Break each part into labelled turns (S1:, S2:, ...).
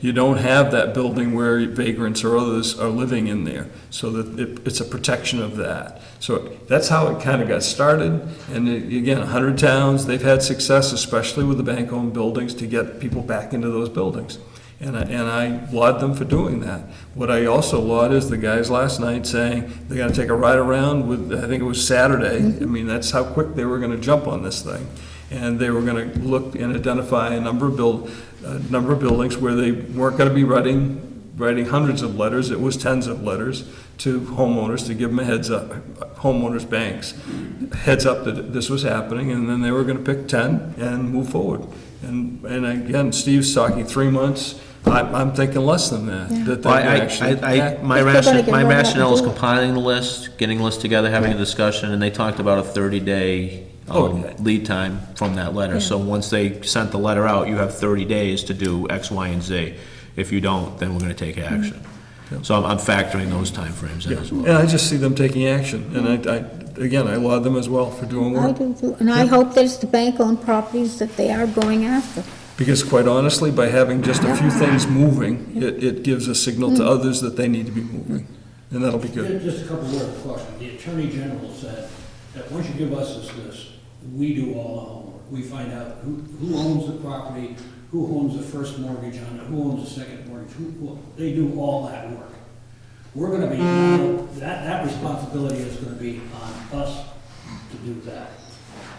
S1: You don't have that building where vagrants or others are living in there, so that it, it's a protection of that. So that's how it kind of got started, and it- again, 100 towns, they've had success, especially with the bank-owned buildings, to get people back into those buildings. And I, and I laud them for doing that. What I also laud is the guys last night saying they're gonna take a ride around with, I think it was Saturday. I mean, that's how quick they were gonna jump on this thing. And they were gonna look and identify a number of build, a number of buildings where they weren't gonna be writing, writing hundreds of letters, it was tens of letters to homeowners to give them a heads up, homeowners, banks, heads up that this was happening, and then they were gonna pick ten and move forward. And, and again, Steve's talking three months, I'm, I'm thinking less than that, that they
S2: Well,
S1: would
S2: I,
S1: actually.
S2: I- I, I, my
S3: If they're gonna
S2: rationale,
S3: get
S2: my
S3: one, let them
S2: rationale is
S3: do it.
S2: compiling the list, getting the list together, having a discussion, and they talked about a thirty-day, um,
S1: Oh.
S2: lead time from that letter. So once they sent the letter out, you have thirty days to do X, Y, and Z. If you don't, then we're gonna take
S3: Mm-hmm.
S2: action. So I'm, I'm factoring those timeframes in as well.
S1: And I just see them taking action, and I, I, again, I laud them as well for doing
S3: I
S1: work.
S3: do, too. and I hope that it's the bank-owned properties that they are going after.
S1: Because quite honestly, by having just a few things moving, it, it gives a signal to others that they need to be moving, and that'll be
S4: Yeah,
S1: good.
S4: Just a couple words of caution. The Attorney General said that once you give us this list, we do all the homework. We find out who, who owns the property, who owns the first mortgage on it, who owns the second mortgage, who, who- they do all that work. We're gonna be, that, that responsibility is gonna be on us to do that.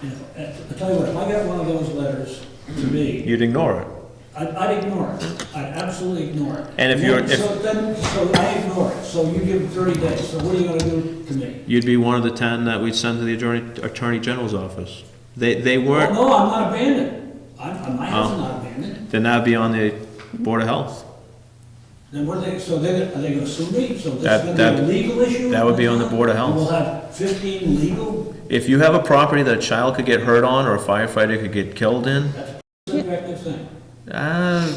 S4: And if- I tell you what, if I got one of those letters to me,
S2: You'd ignore it.
S4: I'd, I'd ignore it. I'd absolutely ignore it.
S2: And if you're-
S4: Then- So then, so I ignore it, so you give them thirty days, so what are you gonna do to me?
S2: You'd be one of the ten that we'd send to the attorney, attorney general's office. They, they
S4: Well,
S2: weren't,
S4: Oh, no, I'm not abandoned. I'm, my house
S2: Oh.
S4: is not abandoned.
S2: then that'd be on the Board of Health.
S4: Then what are they, so they, are they gonna sue me? So this
S2: That-
S4: is gonna be a
S2: that-
S4: legal issue?
S2: that would be on the Board of Health.
S4: We'll have fifteen legal,
S2: If you have a property that a child could get hurt on, or a firefighter could get killed in,
S4: subjective thing.
S2: Uh,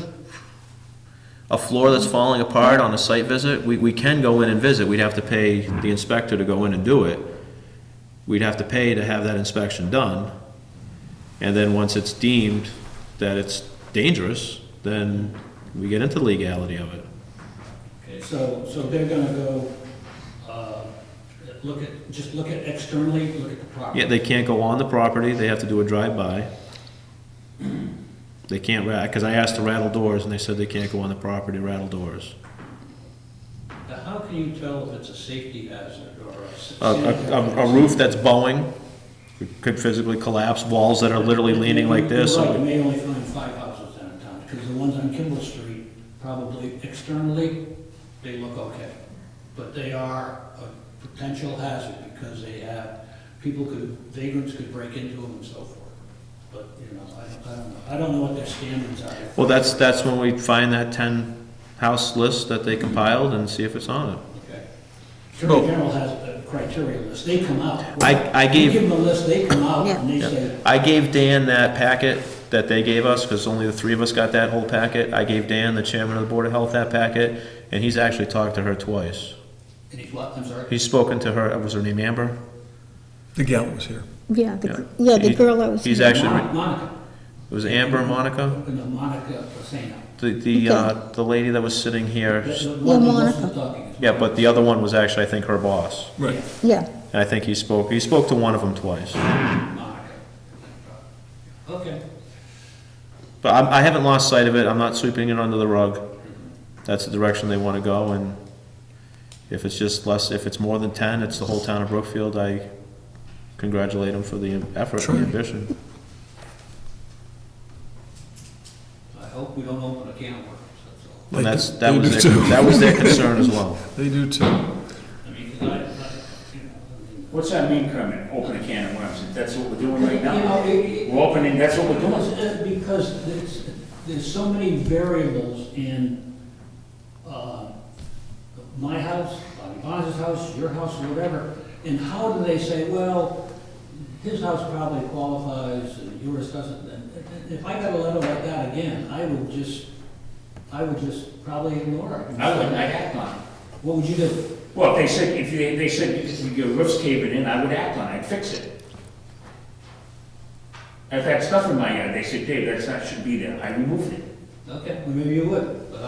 S2: a floor that's falling apart on a site visit, we, we can go in and visit, we'd have to pay the inspector to go in and do it. We'd have to pay to have that inspection done, and then once it's deemed that it's dangerous, then we get into legality of it.
S4: So, so they're gonna go, uh, look at, just look at externally, look at the property.
S2: Yeah, they can't go on the property, they have to do a drive-by. They can't ra, because I asked to rattle doors, and they said they can't go on the property, rattle doors.
S4: Now, how can you tell if it's a safety hazard or a? s-
S2: a, a, a roof that's bowing could physically collapse, walls that are literally leaning like this.
S4: You're right, you may only find five houses downtown, because the ones on Kimball Street, probably externally, they look okay. But they are a potential hazard, because they have, people could, vagrants could break into them and so forth. But, you know, I don't, I don't know, I don't know what their standards are.
S2: Well, that's, that's when we find that ten house list that they compiled and see if it's on it.
S4: Okay. Attorney General has a criteria list, they come out.
S2: I- I
S4: You
S2: gave-
S4: give them a list, they come out, and they
S2: Yeah.
S4: say,
S2: I gave Dan that packet that they gave us, because only the three of us got that whole packet. I gave Dan, the chairman of the Board of Health, that packet, and he's actually talked to her twice.
S4: and he's what, I'm sorry?
S2: He's spoken to her, uh, was her name Amber?
S1: The gal was here.
S3: Yeah, the, gr- yeah, the
S2: He-
S3: girl that was.
S2: He's actually,
S4: Mon-
S2: it
S4: Monica.
S2: was Amber, Monica?
S4: No, Monica Fasano.
S2: The, the, uh, the lady that was sitting here.
S4: That's the one who was
S3: Monica.
S4: talking.
S2: Yeah, but the other one was actually, I think, her boss.
S1: Right.
S3: Yeah,
S2: And I think he spoke, he spoke to one of them twice.
S4: Monica. Okay.
S2: But I, I haven't lost sight of it, I'm not sweeping it under the rug. That's the direction they wanna go, and if it's just less, if it's more than ten, it's the whole town of Brookfield, I congratulate them for the effort
S1: Sure.
S2: and ambition.
S4: I hope we don't open a can of worms, that's all.
S1: They
S2: And that's,
S1: do-
S2: that
S1: they
S2: was
S1: do
S2: their,
S1: too.
S2: that was their concern as well.
S1: They do too.
S4: I mean, 'cause I, I, you know,
S5: What's that mean, Kermit? Open a can of worms. If that's what we're doing right
S4: You
S5: now,
S4: know, it- it-
S5: we're opening, that's what we're doing.
S4: Because- uh, Because there's, there's so many variables in, uh, my house, Bobby Bonds' house, your house, whatever, and how do they say, well, his house probably qualifies, and yours doesn't, and and if I got a letter like that again, I would just, I would just probably ignore it.
S5: I wouldn't, I'd act on it.
S4: What would you do?
S5: Well, if they said, if they, they said, if your roof's caving in, I would act on it, I'd fix it. I've had stuff in my yard, they said, Dave, that's not, should be there. I removed it.
S4: Okay, well, maybe you would.